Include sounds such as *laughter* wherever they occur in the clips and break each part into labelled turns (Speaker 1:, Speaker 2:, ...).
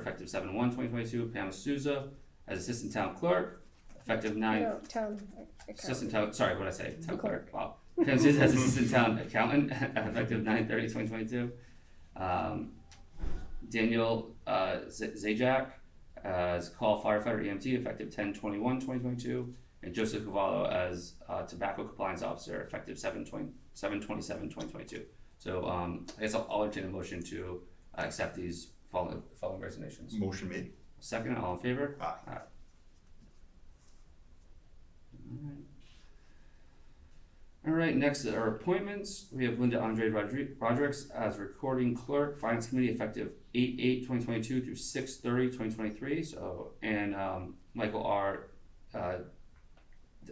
Speaker 1: effective seven one twenty twenty-two, Pam Souza as assistant town clerk, effective nine
Speaker 2: No, town account.
Speaker 1: Assistant town, sorry, what did I say, town clerk,
Speaker 2: Clerk.
Speaker 1: wow. Pam Susan as assistant town accountant, *laughs* effective nine thirty twenty twenty-two. Um, Daniel, uh, Z- Zajac, uh, as call firefighter EMT, effective ten twenty-one twenty twenty-two. And Joseph Cavallo as, uh, tobacco compliance officer, effective seven twenty, seven twenty-seven twenty twenty-two. So, um, I guess I'll, I'll entertain a motion to uh, accept these following, following resignations.
Speaker 3: Motion made.
Speaker 1: Second, all in favor?
Speaker 3: Aye.
Speaker 1: Alright. Alright, next are appointments. We have Linda Andre Rodri- Rodericks as recording clerk, finance committee effective eight eight twenty twenty two through six thirty twenty twenty three, so, and, um, Michael R. Uh,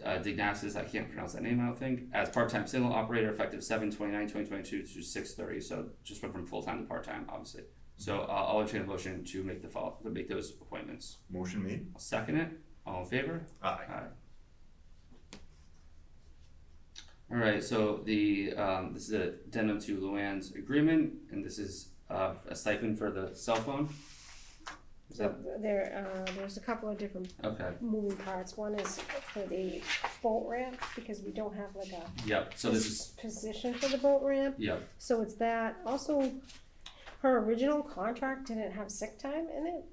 Speaker 1: uh, Dignasis, I can't pronounce that name, I don't think, as part-time signal operator effective seven twenty-nine, twenty twenty-two to six thirty, so just went from full-time to part-time, obviously. So, uh, I'll entertain a motion to make the fall, to make those appointments.
Speaker 3: Motion made.
Speaker 1: I'll second it. All in favor?
Speaker 3: Aye.
Speaker 1: Aye. All right, so the, um, this is a addendum to Luann's agreement, and this is, uh, a stipend for the cell phone? Is
Speaker 2: So
Speaker 1: that,
Speaker 2: there, uh, there's a couple of different
Speaker 1: okay,
Speaker 2: moving parts. One is for the boat ramp, because we don't have like a
Speaker 1: yep, so this is,
Speaker 2: position for the boat ramp.
Speaker 1: yep,
Speaker 2: So it's that, also, her original contract didn't have sick time in it,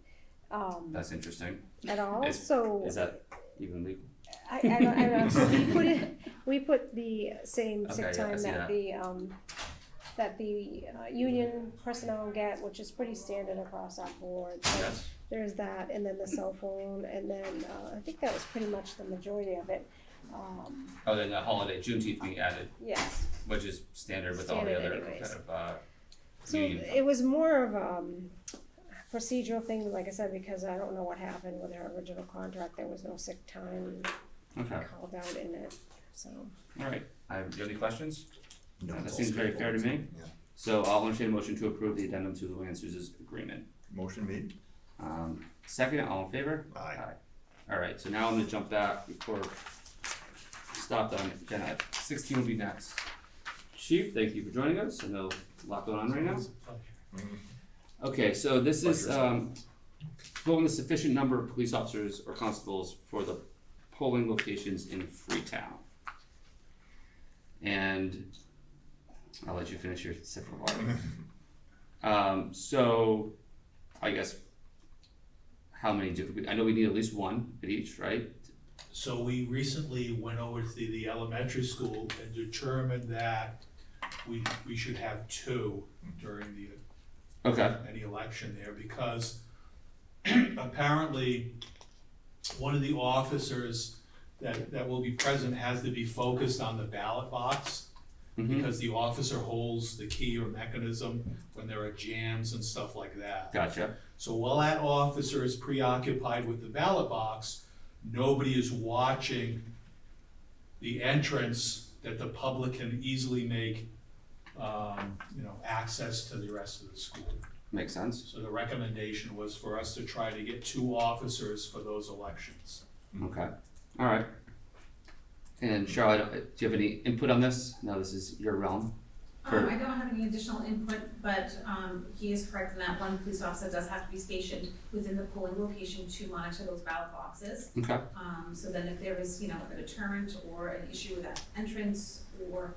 Speaker 2: um,
Speaker 1: that's interesting.
Speaker 2: at all,
Speaker 1: Is-
Speaker 2: so.
Speaker 1: Is that even legal?
Speaker 2: I, I don't, I don't, so we put it, we put the same
Speaker 1: Okay,
Speaker 2: sick
Speaker 1: yeah, I
Speaker 2: time
Speaker 1: see
Speaker 2: that
Speaker 1: that.
Speaker 2: the, um, that the, uh, union personnel get, which is pretty standard across our board. So
Speaker 1: Yes,
Speaker 2: There's that, and then the cell phone, and then, uh, I think that was pretty much the majority of it, um,
Speaker 1: oh, then the holiday, Juneteenth being added,
Speaker 2: yes.
Speaker 1: which is standard with all the
Speaker 2: Standard
Speaker 1: other
Speaker 2: anyways.
Speaker 1: kind of, uh,
Speaker 2: So
Speaker 1: Union.
Speaker 2: it was more of, um, procedural thing, like I said, because I don't know what happened with her original contract, there was no sick time uh,
Speaker 1: okay,
Speaker 2: called out in it, so.
Speaker 1: all right. I, you have any questions?
Speaker 3: No,
Speaker 1: That
Speaker 3: it's all
Speaker 1: seems very fair to
Speaker 3: straightforward. Yeah.
Speaker 1: So I'll entertain a motion to approve the addendum to Luann Souza's agreement.
Speaker 3: Motion made.
Speaker 1: Um, second, all in favor?
Speaker 3: Aye.
Speaker 1: All right, so now I'm gonna jump back before stopped on agenda. Sixteen will be next. Chief, thank you for joining us. I know a lot going on right now.
Speaker 3: Mm,
Speaker 1: Okay, so this is,
Speaker 3: Pleasure.
Speaker 1: um, voting the sufficient number of police officers or constables for the polling locations in Freetown. And I'll let you finish your sip of
Speaker 3: *laughs*
Speaker 1: water. Um, so, I guess, how many do, we- I know we need at least one at each, right?
Speaker 4: So we recently went over to the elementary school and determined that we, we should have two during the
Speaker 1: Okay,
Speaker 4: any election there because *clears throat* apparently one of the officers that, that will be present has to be focused on the ballot box
Speaker 1: mhm,
Speaker 4: because the officer holds the key or mechanism when there are jams and stuff like that.
Speaker 1: gotcha,
Speaker 4: So while that officer is preoccupied with the ballot box, nobody is watching the entrance that the public can easily make, um, you know, access to the rest of the school.
Speaker 1: makes sense,
Speaker 4: So the recommendation was for us to try to get two officers for those elections.
Speaker 1: okay, alright. And Charlotte, uh, do you have any input on this? Now this is your realm.
Speaker 5: Um,
Speaker 1: For-
Speaker 5: I don't have any additional input, but, um, he is correct in that one police officer does have to be stationed within the polling location to monitor those ballot boxes.
Speaker 1: Okay,
Speaker 5: Um, so then if there is, you know, a deterrent or an issue with that entrance or,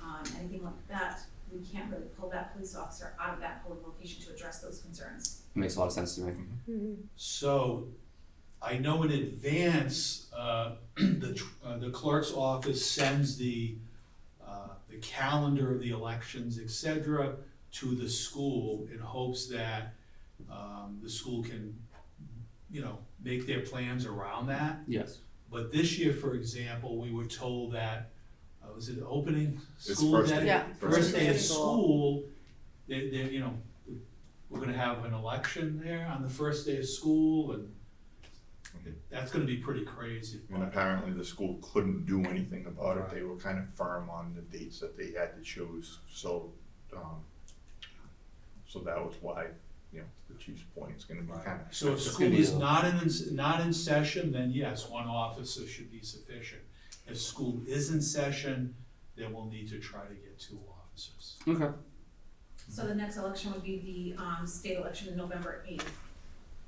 Speaker 5: um, anything like that, we can't really pull that police officer out of that polling location to address those concerns.
Speaker 1: makes a lot of sense to me.
Speaker 4: So I know in advance, uh, *clears throat* the, tr- uh, the clerk's office sends the, uh, the calendar of the elections, et cetera, to the school in hopes that, um, the school can, you know, make their plans around that.
Speaker 1: Yes.
Speaker 4: But this year, for example, we were told that, uh, was it opening
Speaker 3: It's
Speaker 4: school
Speaker 3: first
Speaker 4: day?
Speaker 3: day.
Speaker 6: Yeah.
Speaker 4: first day of
Speaker 6: First day.
Speaker 4: school, they, they, you know, we're gonna have an election there on the first day of school and
Speaker 3: Okay.
Speaker 4: that's gonna be pretty crazy.
Speaker 3: And apparently the school couldn't do anything about it. They were kind of firm on the dates that they had to choose, so, um, so that was why, you know, the chief's point is gonna be kind of.
Speaker 4: So if
Speaker 1: It's
Speaker 4: school
Speaker 1: gonna be
Speaker 4: is
Speaker 1: a-
Speaker 4: not in, not in session, then yes, one officer should be sufficient. If school is in session, then we'll need to try to get two officers.
Speaker 1: Okay.
Speaker 5: So the next election would be the, um, state election in November eighth.